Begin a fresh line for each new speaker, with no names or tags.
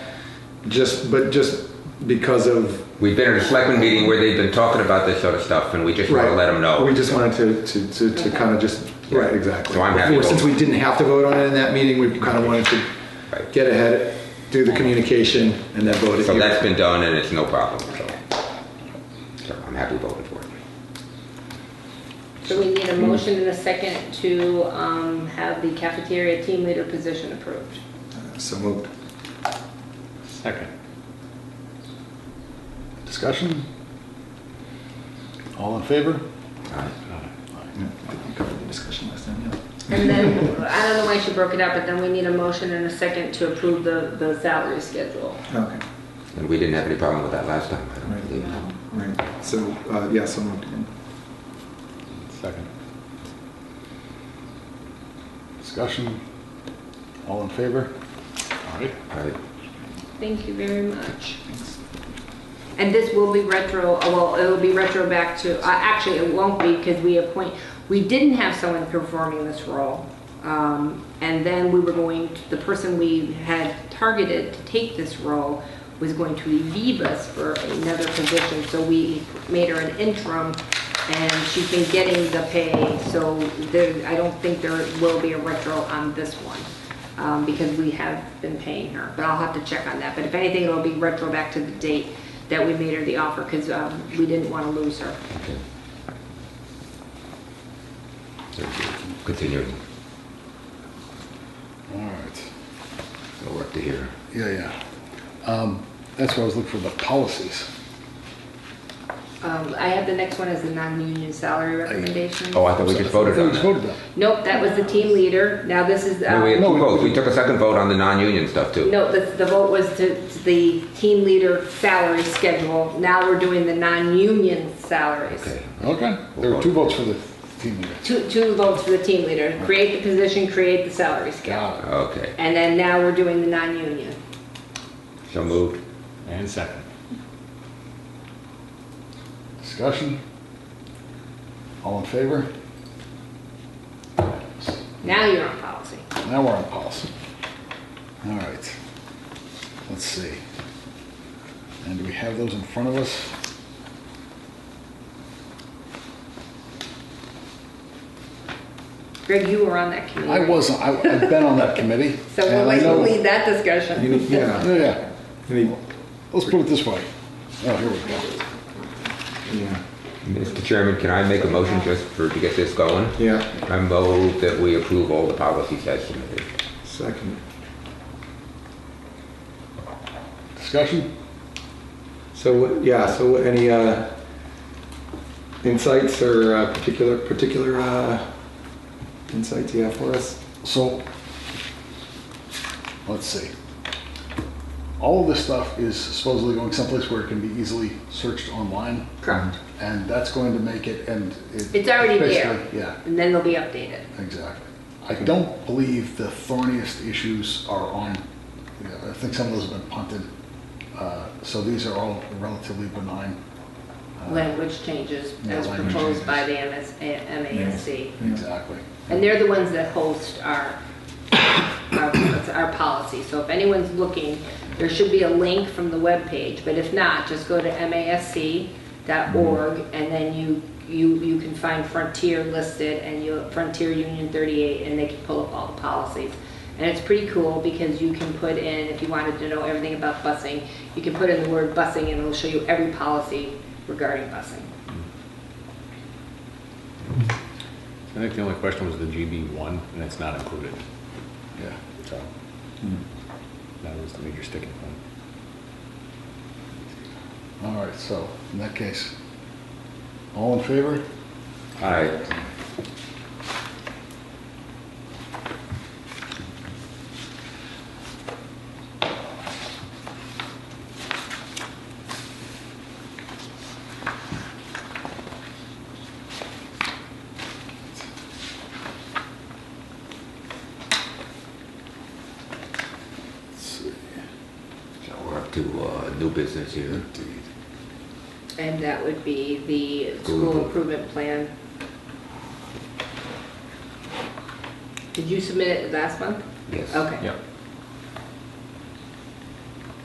just, but just because of,
We've been at a selectmen meeting where they've been talking about this sort of stuff, and we just want
right.
to let them know.
We just wanted to, to, to, to kind of just, right, exactly.
So I'm happy
Before- Since
to-
we didn't have to vote on it in that meeting, we kind of wanted to
Right.
get ahead, do the communication, and then vote it
So
here.
that's been done, and it's no problem, so. So I'm happy voting for it.
So we need a motion and a second to um, have the cafeteria team leader position approved.
So moved.
Second. Discussion? All in favor?
Uh,
Yeah, I think we covered the discussion last time, yeah.
And then, I don't know why she broke it up, but then we need a motion and a second to approve the, the salary schedule.
Okay,
And we didn't have any problem with that last time, I don't
Right.
believe.
right. So, uh, yeah, so moved.
Second. Discussion? All in favor? Aye.
All right.
Thank you very much. And this will be retro, well, it'll be retro back to, uh, actually, it won't be because we appoint, we didn't have someone performing this role. Um, And then we were going, to- the person we had targeted to take this role was going to leave us for another position. So we made her an interim and she's been getting the pay. So there, I don't think there will be a retro on this one um, because we have been paying her, but I'll have to check on that. But if anything, it'll be retro back to the date that we made her the offer, because we didn't want to lose her.
Okay. So, Continuing,
All right.
no work to hear.
Yeah, yeah. Um, That's why I was looking for the policies.
Um, I have the next one as the non-union salary recommendation.
Oh, I thought we just voted
I
on
thought
that.
we just voted on.
Nope, that was the team leader. Now this is,
No, we had
uh,
two votes, we took a second vote on the non-union stuff too.
no, the the vote was to to the team leader salary schedule. Now we're doing the non-union salaries.
Okay,
Okay, there were two votes for the team leader.
Two two votes for the team leader. Create the position, create the salary scale.
Got it.
okay,
And then now we're doing the non-union.
so moved.
And second.
Discussion? All in favor?
Now you're on policy.
Now we're on policy. All right. Let's see. And do we have those in front of us?
Greg, you were on that committee.
I wasn't, I, I've been on that committee.
So
and I
we'll like
know-
lead that
You
discussion.
need- Yeah,
Yeah, yeah.
you need-
Let's put it this way. Oh, here we go.
yeah,
Mr. Chairman, can I make a motion just for, to get this going?
yeah,
I move that we approve all the policies as submitted.
second.
Discussion?
So, what- yeah, so what- any uh, insights or uh, particular, particular uh, insights you have for us?
So, let's see. All of this stuff is supposedly going someplace where it can be easily searched online.
Correct.
And that's going to make it, and it.
It's already there.
basically- Yeah.
And then they'll be updated.
Exactly. I don't believe the thorniest issues are on, you know, I think some of those have been punted. Uh, So these are all relatively benign. uh,
Language changes
Yeah,
as
language
proposed by the MS MASC.
Exactly.
And they're the ones that host our, our, our policy. So if anyone's looking, there should be a link from the webpage, but if not, just go to masc.org and then you, you, you can find Frontier listed and you, Frontier Union 38, and they can pull up all the policies. And it's pretty cool because you can put in, if you wanted to know everything about busing, you can put in the word busing and it'll show you every policy regarding busing.
I think the only question was the GB one, and it's not included,
Yeah.
so. That was the major sticking point.
All right, so in that case, all in favor?
All right,
Let's see.
so we're up to, uh, new business here.
Indeed.
And that would be the school improvement plan. Did you submit it last month?
Yes.
Okay.
Yep.